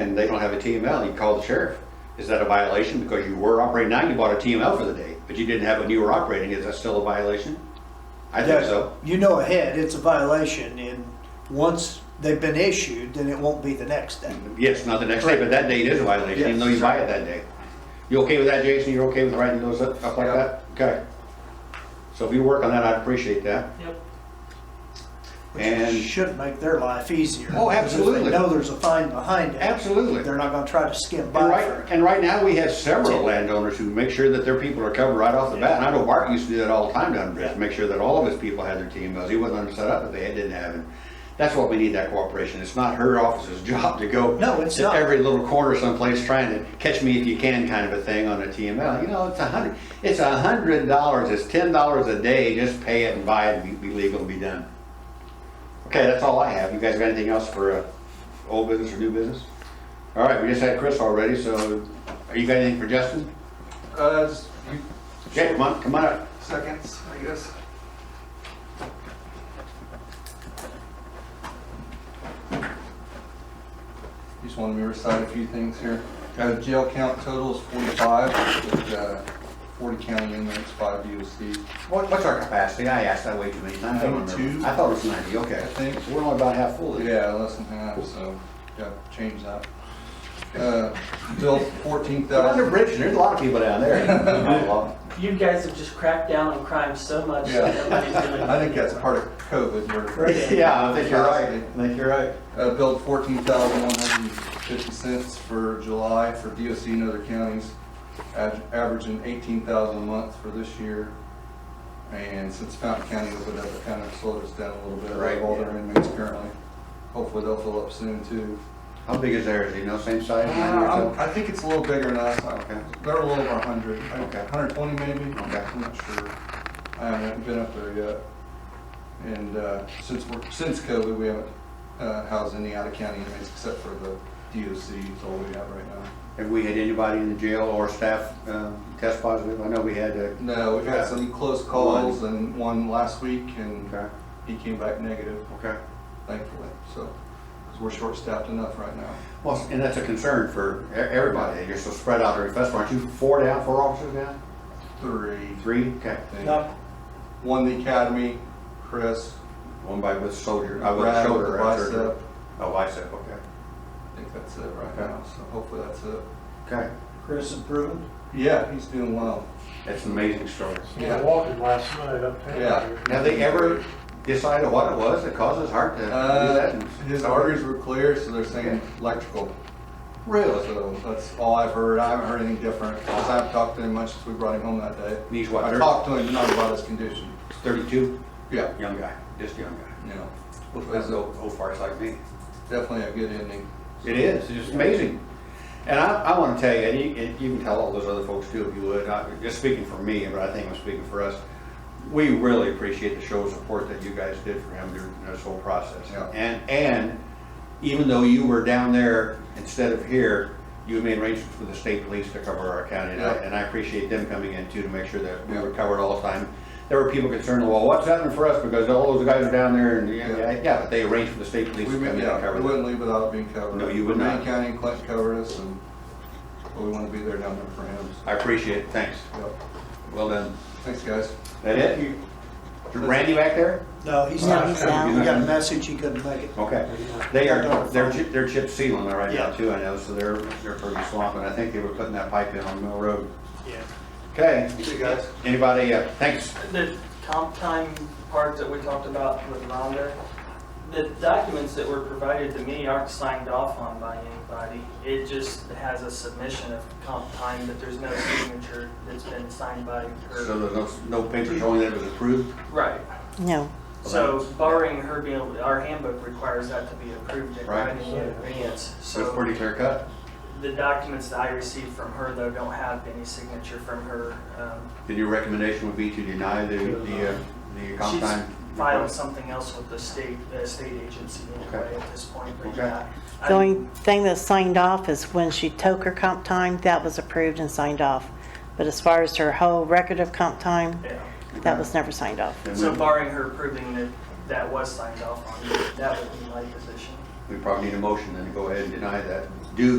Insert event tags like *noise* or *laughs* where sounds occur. and they don't have a TML, you call the sheriff. Is that a violation? Because you were operating, now you bought a TML for the day, but you didn't have when you were operating. Is that still a violation? I think so. You know ahead, it's a violation, and once they've been issued, then it won't be the next day. Yes, not the next day, but that date is a violation, even though you buy it that day. You okay with that, Jason? You're okay with writing those up up like that? Okay. So if you work on that, I'd appreciate that. Yep. Which And, should make their life easier. Oh, Because absolutely. if they know there's a fine behind it. Absolutely. They're not gonna try to skim and by right, for it. and right now, we have several landowners who make sure that their people are covered right off the bat. And I know Bart used to do that all the time down there, to make sure that all of his people had their TMLs. He wasn't them set up if they didn't have it. That's what we need, that cooperation. It's not her office's *laughs* job to go. No, it's to not. Every little corner someplace trying to catch me if you can kind of a thing on a TML. You know, it's a hundred, it's a hundred dollars, it's ten dollars a day, just pay it and buy it and be be legal and be done. Okay, that's all I have. You guys got anything else for uh, old business or new business? All right, we just had Chris already, so are you got anything for Justin? Uh, just a few Okay, come on, come on up. seconds, I guess. Just wanted me to recite a few things here. Uh, jail count total is forty-five, with, uh, forty county inmates, five DOCs. What- What's our capacity? I asked that way too many times. I don't remember. Ninety-two. I thought it was ninety, okay. I think. So we're only about half full. then. Yeah, less than half, so, gotta change that. Uh, built fourteen Go down to thousand. Bridgeton, there's a lot of people down *laughs* there. You guys have just cracked down on crime so much that Yeah. nobody's doing. *laughs* I think that's part of COVID, where Yeah, I think you're right. I think you're right. Uh, billed fourteen thousand one hundred and fifty cents for July for DOC and other counties, ad- averaging eighteen thousand a month for this year. And since Fountain County opened up, it kind of slowed us down a little bit, Right, right, all their yeah. inmates currently. Hopefully they'll fill up soon too. How big is theirs? You know, same size? nine years Uh, old? I think it's a little bigger than us, Okay. they're a little over a hundred, Okay. hundred twenty maybe, Okay. I'm not sure. I haven't been up there yet. And uh, since we're, since COVID, we haven't uh, housed any out-of-county inmates except for the DOC, is all we have right now. Have we had anybody in the jail or staff um, test positive? I know we had, uh, No, we've had some close calls and one last week and okay, he came back negative, okay. thankfully, so. Because we're short-staffed enough right now. Well, and that's a concern for e- everybody. You're so spread out very fast. Aren't you four down, four officers down? Three, Three? Okay. I think. No, One the academy, Chris, One by with soldier, uh, with Brad with the shoulder. uh, surgery. bicep. Oh, bicep, okay. I think that's it right Okay. now, so hopefully that's it. Okay. Chris improved. Yeah, he's doing well. That's an amazing story. Yeah. Yeah, walking last night uptown. Yeah. here. Have they ever decided what it was that caused his heart to do Uh, that? his arteries were clear, so they're saying electrical. Really? So that's all I've heard. I haven't heard anything different. 'cause I haven't talked to him much since we brought him home that day. He's what, I thirty? talked to him, not about his condition. Thirty-two? Yeah, Young guy, just young guy. you know, Looks That's like old, old farts like me. definitely a good ending. It is, it's just amazing. And I, I want to tell you, and you, and you can tell all those other folks too if you would, I- just speaking for me, but I think I'm speaking for us. We really appreciate the show of support that you guys did for him during this whole process. Yeah. And, and even though you were down there instead of here, you made arrangements with the state police to cover our county. And I, Yeah. and I appreciate them coming in too to make sure that we were Yeah. covered all the time. There were people concerned, well, what's happening for us because all those guys are down there and, yeah, Yeah. yeah, yeah, but they arranged for the state We, police to come in may- and yeah, cover we them. wouldn't leave without being covered. No, you would not. Maine County and Clinton covered us and, well, we want to be there down there for him. so, I appreciate it, thanks. yeah. Well done. Thanks, guys. That it? You- Is Randy back there? No, he's No, not. he's out. He got a message, he couldn't make it. Okay. They are, they're chip, they're chip sealing it right now too, I know, so they're, they're pretty swamped, and I think they were putting that pipe in on Mill Road. Yeah. Okay, See you guys. anybody, uh, thanks. The comp time part that we talked about with Rhonda, the documents that were provided to me aren't signed off on by anybody. It just has a submission of comp time, but there's no signature that's been signed by So her. there's no, no paper showing that it was approved? Right. No. So barring her being, able- our handbook requires that to be approved in Right. writing in advance. So it's So pretty clear cut? the documents that I received from her though don't have any signature from her. Um, Then your recommendation would be to deny the, the, uh, the comp She's time? filed something else with the state, uh, state agency anyway at this point, but Okay. yeah. I- The only thing that's signed off is when she took her comp time, that was approved and signed off. But as far as her whole record of comp time, Yeah. that was never signed off. Then So we- barring her proving that that was signed off on, that would be my position. We probably need a motion then to go ahead and deny that due